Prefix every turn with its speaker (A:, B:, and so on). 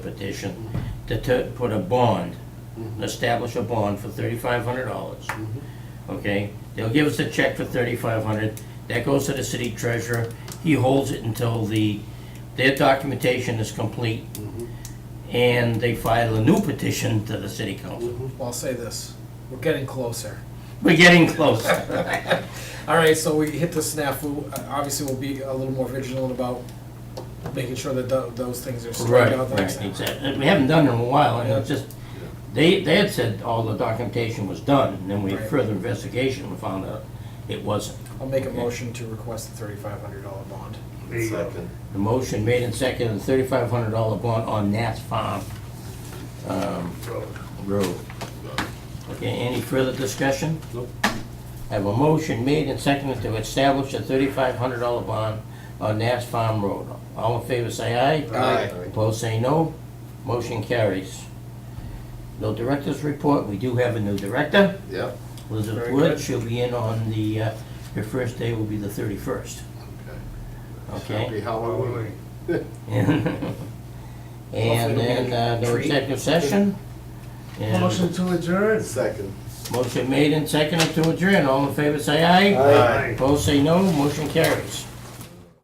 A: petition to t- put a bond, establish a bond for thirty-five hundred dollars. Okay, they'll give us a check for thirty-five hundred, that goes to the city treasurer, he holds it until the, their documentation is complete, and they file a new petition to the city council.
B: Well, I'll say this, we're getting closer.
A: We're getting close.
B: All right, so we hit the snafu, Uh, obviously we'll be a little more vigilant about making sure that tho- those things are straightened out the next time.
A: Exactly, we haven't done it in a while, and it's just, they, they had said all the documentation was done, and then we had
B: Right.
A: further investigation and found out it wasn't.
B: I'll make a motion to request the thirty-five hundred dollar bond.
C: Second.
A: The motion made and seconded, a thirty-five hundred dollar bond on Nats Farm um, Road. Okay, any further discussion?
C: Nope.
A: I have a motion made and seconded to establish a thirty-five hundred dollar bond on Nats Farm Road. All in favor, say aye.
C: Aye.
A: Opposed, say no. Motion carries. No director's report, we do have a new director.
C: Yep.
A: Elizabeth
B: Very
A: Wood,
B: good.
A: she'll be in on the, uh, her first day will be the thirty-first, okay?
C: Happy Halloween.
A: And then, uh, no executive session. And
D: Motion to adjourn.
C: Second.
A: Motion made and seconded to adjourn. All in favor, say aye.
C: Aye.
A: Opposed, say no. Motion carries.